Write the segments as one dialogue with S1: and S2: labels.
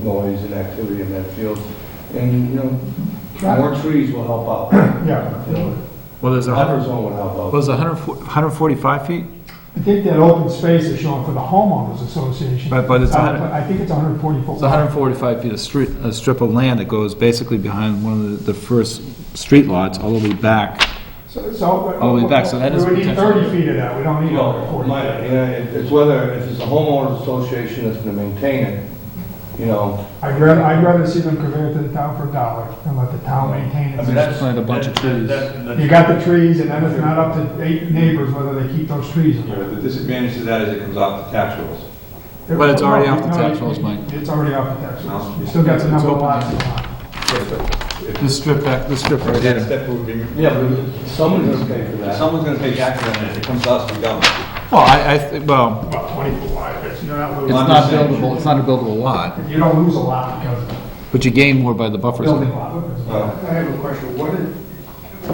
S1: noise and activity in that field. And, you know, more trees will help out.
S2: Yeah,
S1: You know,
S3: Well, there's a hundred,
S1: Buffer zone would help
S3: well,
S1: out.
S3: there's a hundred and fo- 145 feet?
S2: I think that open space is shown for the homeowners association. Uh,
S3: But- but it's a hundred-
S2: I think it's 140 foot.
S3: It's 145 feet of street, a strip of land that goes basically behind one of the, the first street lots all the way back.
S2: So- So.
S3: All the way back, so that is
S2: We would need
S3: potential.
S2: 30 feet of that, we don't need
S1: Well,
S2: 140.
S1: my, you know, it- it's whether, uh, if it's a homeowners association that's gonna maintain it, you know.
S2: I'd rather, I'd rather see them convey it to the town for a dollar and let the town maintain
S1: I mean,
S2: it.
S1: that's-
S3: plant a bunch of
S4: That-
S3: trees.
S4: that- that-
S2: You got the trees, and then it's not up to eight neighbors whether they keep those trees. or
S5: Yeah,
S2: not.
S5: but the disadvantage to that is it comes off the tax rolls.
S3: But it's already off the
S2: No,
S3: tax
S2: you-
S3: rolls, Mike.
S2: It's already off the tax rolls.
S5: No.
S2: You still got the number of
S3: open.
S2: lots.
S3: This strip back, this strip right
S5: That
S3: here.
S5: step would be,
S1: Yeah, but someone's gonna pay for
S5: if
S1: that.
S5: someone's gonna pay taxes on it, if it comes to us, we don't.
S3: Well, I, I, thi- well,
S2: About 20 foot wide, but you're not
S3: it's
S2: losing,
S5: Well, I'm
S3: not
S5: just saying-
S3: buildable, it's not a buildable lot,
S2: you don't lose a lot because of the
S3: but you gain more by the buffer
S2: building
S3: zone.
S2: lot.
S1: uh,
S6: I have a question. What is,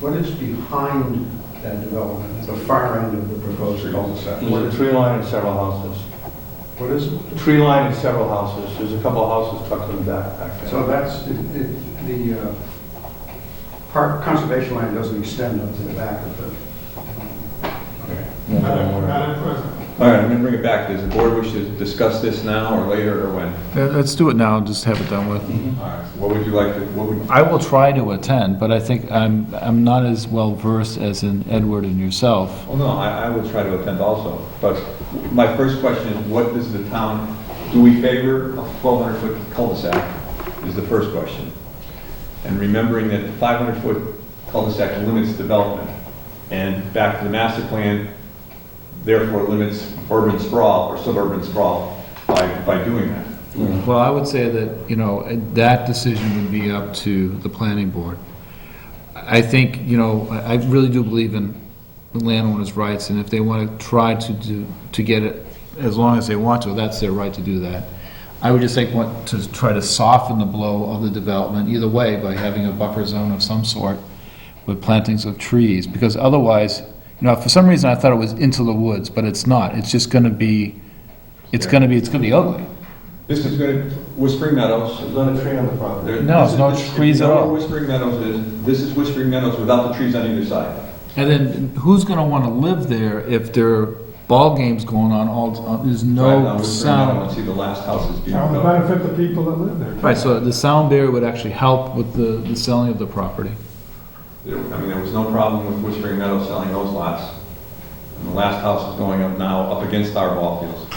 S6: what is behind that development, the far end of the proposed cul-de-sac?
S1: There's
S6: What
S1: a
S6: is-
S1: tree line and several houses.
S6: What is, it?
S1: Tree line and several houses. There's a couple of houses tucked in the back, back there.
S6: so that's, it- it- the uh, park, conservation land doesn't extend up to the back of the,
S2: Madam President.
S5: All right, I'm gonna bring it back. Does the board wish to discuss this now or later or when?
S3: Yeah, Uh, Let's do it now and just have it done with.
S5: All right, what would you like to, what would,
S3: I will try to attend, but I think I'm, I'm not as well versed as in Edward and yourself.
S5: well, no, I, I would try to attend also. But my first question is, what does the town, do we favor a twelve hundred foot cul-de-sac? Is the first question. And remembering that the five hundred foot cul-de-sac limits development. And back to the master plan, therefore limits urban sprawl or suburban sprawl by, by doing that.
S3: Well, I would say that, you know, that decision would be up to the planning board. I think, you know, I I really do believe in the landowner's rights, and if they want to try to do, to get it as long as they want to, that's their right to do that. I would just think, want to try to soften the blow of the development either way by having a buffer zone of some sort with plantings of trees, because otherwise, you know, for some reason I thought it was into the woods, but it's not. It's just going to be, it's going to be, it's going to be ugly.
S5: This is gonna, Whispering Meadows,
S1: There's not a tree on the property.
S5: There-
S3: No, there's no
S5: this is-
S3: trees
S5: you
S3: at
S5: know
S3: all.
S5: where Whispering Meadows is, this is Whispering Meadows without the trees on either side.
S3: And then who's going to want to live there if there are ball games going on all, uh, there's
S5: Right now,
S3: no
S5: Whispering Meadows,
S3: sound?
S5: see the last houses being
S2: That would
S5: built.
S2: benefit the people that live there.
S3: Right, so the sound barrier would actually help with the, the selling of the property.
S5: There- I mean, there was no problem with Whispering Meadows selling those lots. And the last house is going up now, up against our ball fields.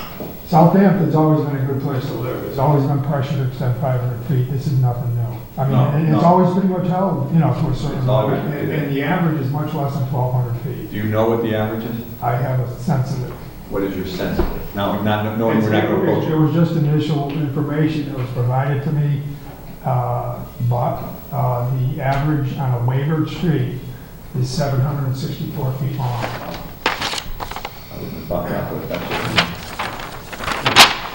S2: Southampton's always been a good place to live. There's always been pressure to extend 500 feet. This is nothing new. I
S5: No,
S2: mean, it- it's
S5: no.
S2: always pretty much held, you know, to a certain
S5: It's always-
S2: level. And and the average is much less than 1,200 feet.
S5: Do you know what the average is?
S2: I have a sense of it.
S5: What is your sense of it? Now, not knowing
S2: It's-
S5: we're not going to approach
S2: It
S5: it.
S2: was just initial information that was provided to me, uh, but uh, the average on a wavered street is 764 feet long.
S5: I wouldn't have thought that, but that's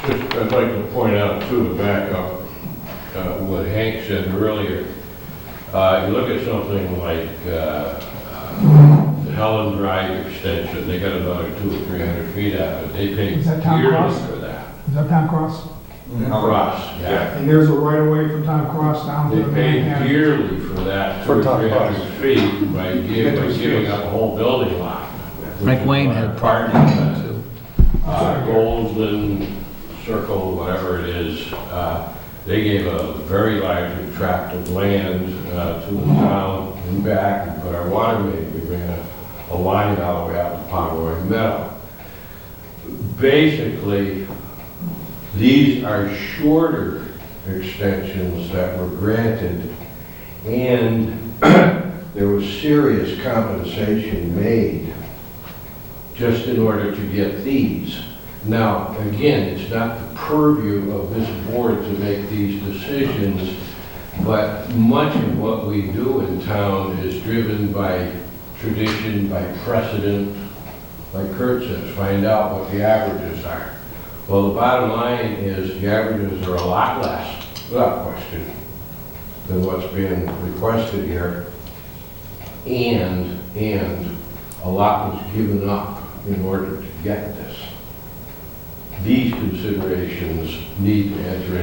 S5: it.
S7: Just, I'd like to point out too, to back up uh, what Hank said earlier. Uh, You look at something like uh, the Helen Drive extension, they got another two or three hundred feet out of it. They paid
S2: Is that town
S7: years
S2: cross?
S7: for that.
S2: Is that Tom Cross?
S5: How much?
S7: Cross, yeah.
S2: And there's a right of way from Tom Cross down to
S7: They
S2: the
S7: paid
S2: Manhattan.
S7: yearly for that, two
S1: For
S7: or
S1: town
S7: three
S1: cross.
S7: hundred feet by gi- by giving up a whole building lot. which
S3: Frank
S7: is
S3: Wayne
S7: what
S3: had
S7: our
S3: property on
S7: partner does.
S3: that too.
S7: uh, Golden Circle, whatever it is, uh, they gave a very large tract of land uh, to the town and back, and put our water main, we ran a- a line all the way out to Pomeroy Meadow. Basically, these are shorter extensions that were granted, and there was serious compensation made just in order to get these. Now, again, it's not the purview of this board to make these decisions, but much of what we do in town is driven by tradition, by precedent, like Kurt says, find out what the averages are. Well, the bottom line is the averages are a lot less, without question, than what's being requested here. And, and a lot was given up in order to get this. These considerations need to enter